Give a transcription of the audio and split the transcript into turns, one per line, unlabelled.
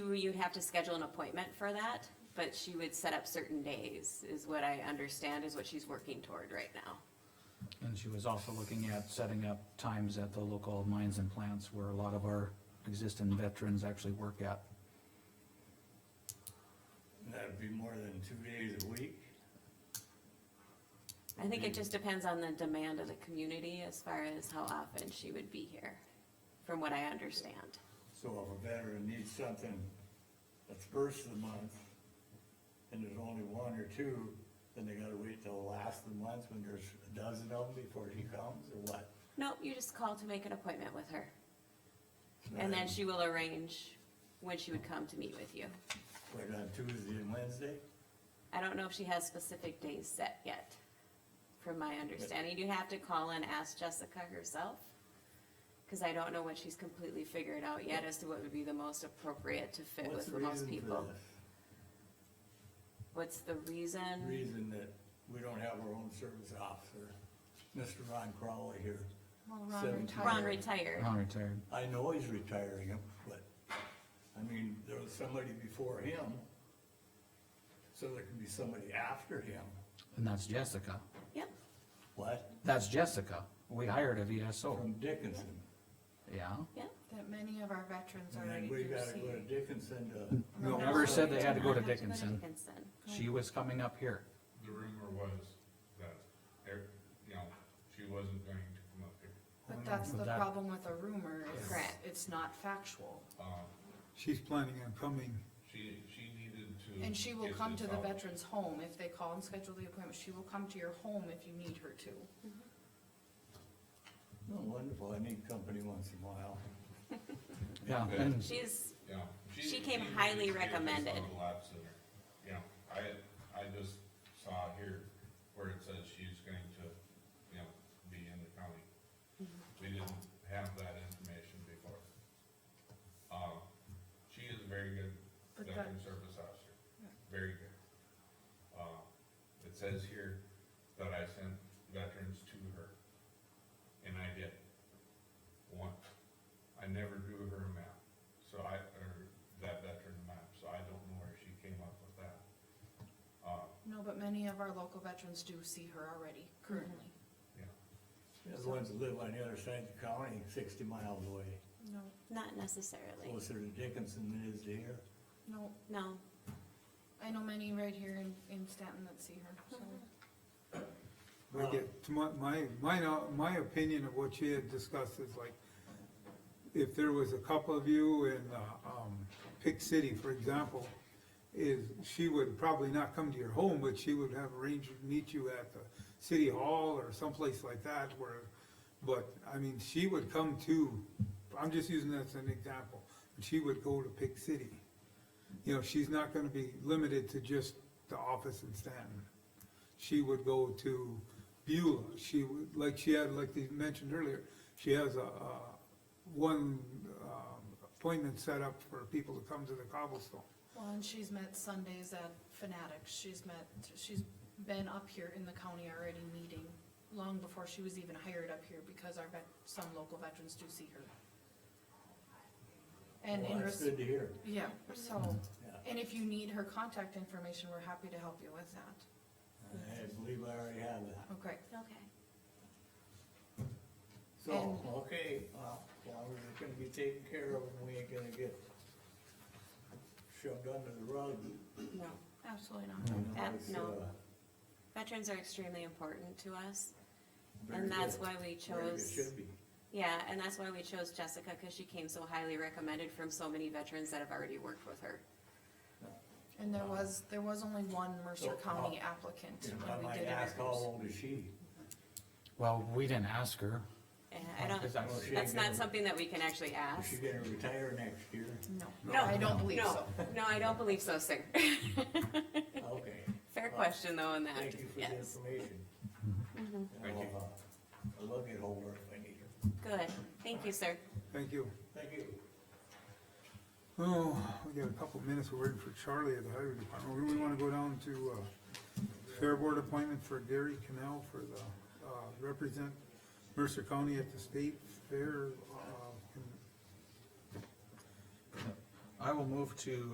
you, you'd have to schedule an appointment for that, but she would set up certain days, is what I understand is what she's working toward right now.
And she was also looking at setting up times at the local mines and plants where a lot of our existing veterans actually work at.
That'd be more than two days a week.
I think it just depends on the demand of the community as far as how often she would be here, from what I understand.
So if a veteran needs something that's first of the month, and there's only one or two, then they gotta wait till the last of the month when there's a dozen of them before she comes, or what?
Nope, you just call to make an appointment with her, and then she will arrange when she would come to meet with you.
Right on Tuesday and Wednesday?
I don't know if she has specific days set yet, from my understanding. You'd have to call and ask Jessica herself, because I don't know what she's completely figured out yet as to what would be the most appropriate to fit
What's
with the
the
most
reason for
people.
this?
What's the reason?
Reason that we don't have our own service officer, Mr. Ron Crowley here.
Well, Ron
Seventeen.
retired.
Ron retired.
I'm retired.
I know he's retiring him, but, I mean, there was somebody before him, so there can be somebody after him.
And that's Jessica.
Yep,
What?
That's Jessica. We hired a VSO.
From Dickinson.
Yeah.
yep.
That many of our veterans
And
already
then we
do
gotta go to
see.
Dickinson to,
No.
Never said they had to go to
Have go to
Dickinson.
Dickinson.
She was coming up here.
The rumor was that, there- you know, she wasn't going to come up here.
But that's the
That-
problem with a rumor, is
Correct.
it's not factual.
Um,
She's planning on coming,
she, she needed to.
And she will
get
come to
this
the
out.
veteran's home if they call and schedule the appointment. She will come to your home if you need her to.
oh, wonderful, I need company once in a while.
Yeah, and
She's,
You know,
She came
needed
highly
to get this
recommended.
out of the lab sooner. You know, I, I just saw here where it says she's going to, you know, be in the county. We didn't have that information before. Um, she is a very good
But
veteran
that-
service officer, very good. Uh, it says here that I sent veterans to her, and I did. One, I never drew her a map, so I, or that veteran map, so I don't know where she came up with that. Uh,
No, but many of our local veterans do see her already currently.
yeah,
There's ones that live on the other side of the county, sixty miles away,
No,
not necessarily,
closer to Dickinson than it is to here.
no,
no.
I know many right here in, in Stanton that see her, so.
I get, to my, my, my, know- my opinion of what she had discussed is like, if there was a couple of you in, uh, um, Pick City, for example, is, she would probably not come to your home, but she would have arranged to meet you at the city hall or someplace like that where, but, I mean, she would come to, I'm just using that as an example, she would go to Pick City. You know, she's not gonna be limited to just the office in Stanton she would go to Beulah. She would, like she had, like they mentioned earlier, she has a, a one um, appointment set up for people to come to the cobblestone.
Well, and she's met Sundays at Fanatics, she's met, she's been up here in the county already meeting long before she was even hired up here because our vet, some local veterans do see her. And
Well,
in,
Oh, That's
res-
good to hear,
yeah, so,
yeah.
and if you need her contact information, we're happy to help you with that.
I believe I already have that.
Okay,
Okay.
So, okay, well, well, we're gonna be taken care of and we ain't gonna get shoved under the rug.
No.
absolutely
You
not.
know,
Uh,
it's,
no.
uh,
Veterans are extremely important to us,
very
and that's
good.
why we
Very good,
chose.
Should be.
Yeah, and that's why we chose Jessica, because she came so highly recommended from so many veterans that have already worked with her.
And there was, there was only one Mercer
Mm-hmm. So, uh,
County applicant
If I
when we
might
did
ask, how
interviews.
old is she?
well, we didn't ask her.
And
Oh,
I don't,
Is that-
Well, she
that's
ain't
not
gonna-
something that we can actually
Is
ask.
she gonna retire next year?
No,
No,
I don't believe
No,
so.
no, I don't believe so, sir.
Okay,
Fair
Well,
question though on that,
thank you for the
yes.
information.
Thank you.
I'll, uh, I'll look at her if I need her.
Good, thank you, sir.
Thank you.
Thank you.
Oh, we got a couple minutes, we're waiting for Charlie at the highway department. We wanna go down to, uh, Fair Board appointment for Gary Canal for the, uh, represent Mercer County at the state fair, uh,
I will move to